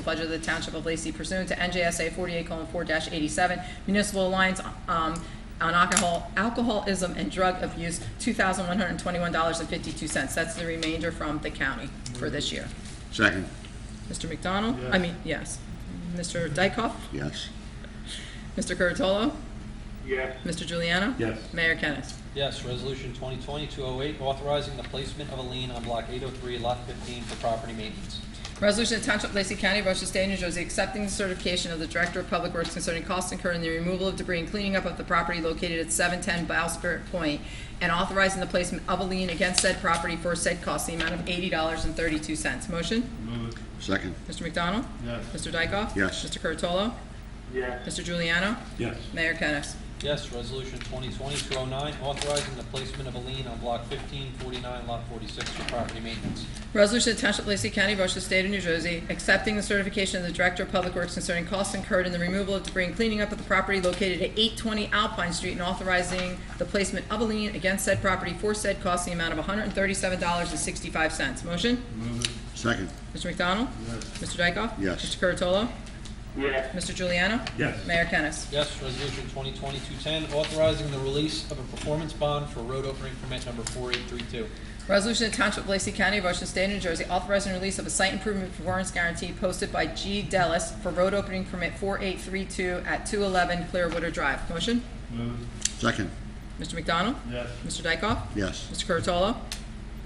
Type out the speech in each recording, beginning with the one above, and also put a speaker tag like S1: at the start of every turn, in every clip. S1: the budget of the Township of Lacey pursuant to NJSA 48:4-87 Municipal Alliance um, on Alcohol, Alcoholism and Drug Abuse, $2,121.52. That's the remainder from the county for this year.
S2: Second,
S1: Mr. McDonald? I mean, yes. Mr. Dykoff?
S2: yes.
S1: Mr. Curatolo?
S3: yes,
S1: Mr. Juliano?
S4: Yes.
S1: Mayor Kennas.
S5: Yes, Resolution 2020-208, authorizing the placement of a lien on Block 803, Lot 15 for property maintenance.
S1: Resolution of Township of Lacey County, Ocean State, New Jersey, accepting the certification of the Director of Public Works concerning costs incurred in the removal of debris and cleaning up of the property located at 710 Bowsprit Point, and authorizing the placement of a lien against said property for said costs, the amount of $80.32. Motion?
S4: Move it.
S2: Second,
S1: Mr. McDonald?
S4: Yes.
S1: Mr. Dykoff?
S2: Yes.
S1: Mr. Curatolo?
S3: yes,
S1: Mr. Juliano?
S4: Yes.
S1: Mayor Kennas.
S5: Yes, Resolution 2020-209, authorizing the placement of a lien on Block 1549, Lot 46 for property maintenance.
S1: Resolution to Township of Lacey County, Ocean State of New Jersey, accepting the certification of the Director of Public Works concerning costs incurred in the removal of debris and cleaning up of the property located at 820 Alpine Street and authorizing the placement of a lien against said property for said costs in the amount of $137.65. Motion?
S4: Move it.
S2: second,
S1: Mr. McDonald?
S4: Yes.
S1: Mr. Dykoff?
S2: Yes.
S1: Mr. Curatolo?
S3: yes,
S1: Mr. Juliano?
S4: Yes.
S1: Mayor Kennas.
S5: Yes, Resolution 2020-210, authorizing the release of a performance bond for road opening permit number 4832.
S1: Resolution to Township of Lacey County, Ocean State, New Jersey, authorizing release of a site improvement performance guarantee posted by G. Dellis for road opening permit 4832 at 211 Clearwater Drive. Motion?
S4: Move it.
S2: second,
S1: Mr. McDonald?
S4: Yes.
S1: Mr. Dykoff?
S2: yes.
S1: Mr. Curatolo?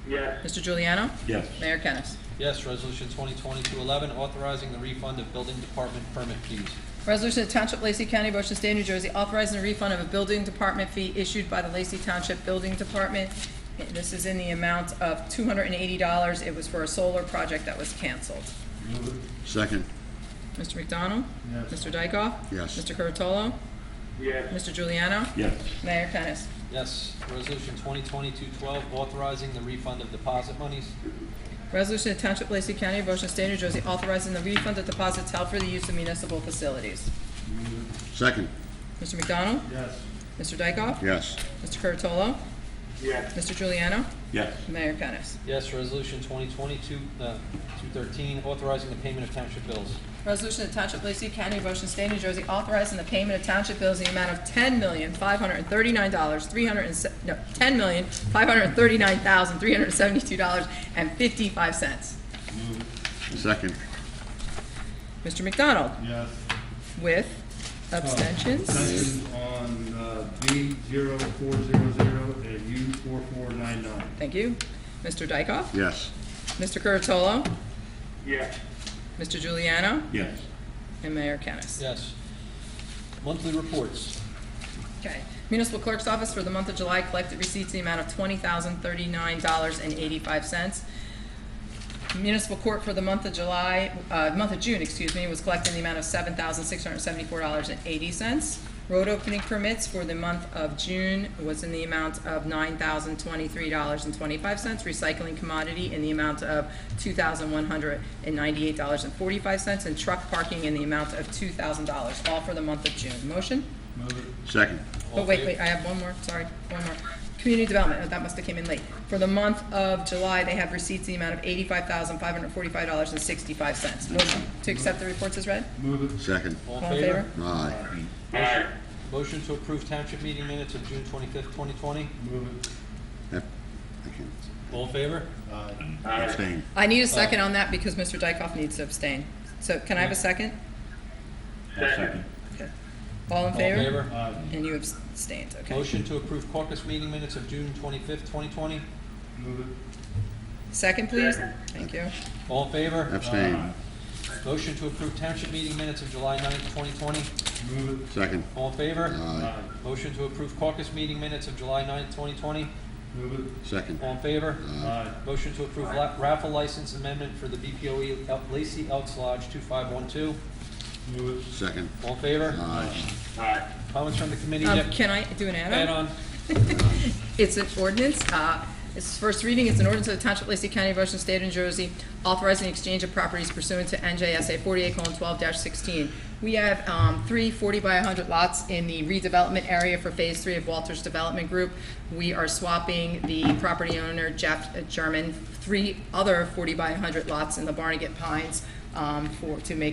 S3: yes,
S1: Mr. Juliano?
S4: Yes.
S1: Mayor Kennas.
S5: Yes, Resolution 2020-211, authorizing the refund of building department permit fees.
S1: Resolution to Township of Lacey County, Ocean State, New Jersey, authorizing a refund of a building department fee issued by the Lacey Township Building Department. This is in the amount of $280. It was for a solar project that was canceled.
S4: Move it.
S2: Second,
S1: Mr. McDonald?
S4: Yes.
S1: Mr. Dykoff?
S2: Yes.
S1: Mr. Curatolo?
S3: yes,
S1: Mr. Juliano?
S4: Yes.
S1: Mayor Kennas.
S5: Yes, Resolution 2020-212, authorizing the refund of deposit monies.
S1: Resolution to Township of Lacey County, Ocean State, New Jersey, authorizing the refund of deposits held for the use of municipal facilities.
S4: Move it.
S2: second,
S1: Mr. McDonald?
S4: Yes.
S1: Mr. Dykoff?
S2: yes.
S1: Mr. Curatolo?
S3: yes,
S1: Mr. Juliano?
S4: Yes.
S1: Mayor Kennas.
S5: Yes, Resolution 2020-213, authorizing the payment of township bills.
S1: Resolution of Township of Lacey County, Ocean State, New Jersey, authorizing the payment of township bills in the amount of ten million, five hundred and thirty-nine dollars, three hundred and, no, ten million, five hundred and thirty-nine thousand, three hundred and seventy-two dollars and fifty-five cents.
S4: Move it.
S2: Second,
S1: Mr. McDonald,
S4: Yes.
S1: with abstentions?
S4: Abstentions on uh, B zero four zero zero and U four four nine nine.
S1: Thank you. Mr. Dykoff?
S2: yes.
S1: Mr. Curatolo?
S3: yes,
S1: Mr. Juliano?
S4: Yes.
S1: And Mayor Kennas.
S5: Yes. Monthly reports.
S1: Okay. Municipal Clerk's Office for the month of July collected receipts in the amount of twenty thousand thirty-nine dollars and eighty-five cents. Municipal Court for the month of July, uh, month of June, excuse me, was collecting the amount of seven thousand six hundred seventy-four dollars and eighty cents. Road opening permits for the month of June was in the amount of nine thousand twenty-three dollars and twenty-five cents. Recycling commodity in the amount of two thousand one hundred and ninety-eight dollars and forty-five cents. And truck parking in the amount of two thousand dollars, all for the month of June. Motion?
S4: Move it.
S2: Second,
S5: All
S1: Oh, wait,
S5: fa-
S1: wait, I have one more, sorry, one more. Community development, oh, that must have came in late. For the month of July, they have receipts in the amount of eighty-five thousand, five hundred forty-five dollars and sixty-five cents. Motion to accept the reports as read?
S4: Move it.
S2: second,
S5: All
S1: All in favor?
S2: aye.
S3: aye,
S5: Motion to approve township meeting minutes of June twenty-fifth, twenty twenty.
S4: Move it.
S2: F- I can
S5: All in favor?
S4: Aye.
S3: aye,
S2: Abstain,
S1: I need a second on that because Mr. Dykoff needs to abstain. So can I have a second?
S3: second,
S1: Okay. All in
S5: All in
S1: favor?
S5: favor?
S4: Aye.
S1: And you abstained, okay.
S5: Motion to approve caucus meeting minutes of June twenty-fifth, twenty twenty.
S4: Move it.
S1: Second, please?
S3: Second.
S1: Thank you.
S5: All in favor?
S2: abstain,
S5: Motion to approve township meeting minutes of July ninth, twenty twenty.
S4: Move it.
S2: second,
S5: All in favor?
S2: aye.
S4: Aye.
S5: Motion to approve caucus meeting minutes of July ninth, twenty twenty.
S4: Move it.
S2: Second,
S5: All in favor?
S4: Aye.
S5: Motion to approve la- raffle license amendment for the BPOE El- E Lacey Elks Lodge two five one two.
S4: Move it.
S2: second,
S5: All in favor?
S2: aye.
S3: aye,
S5: Comments from the committee?
S1: Um,
S5: Yep.
S1: can I do an
S5: Add on.
S1: It's an ordinance, uh, it's first reading, it's an ordinance of the Township of Lacey County, Ocean State, New Jersey, authorizing the exchange of properties pursuant to NJSA forty-eight twelve sixteen. We have, um, three 40 by hundred lots in the redevelopment area for Phase Three of Walters Development Group. We are swapping the property owner, Jeff German, three other forty by hundred lots in the Barnegat Pines um, for, to make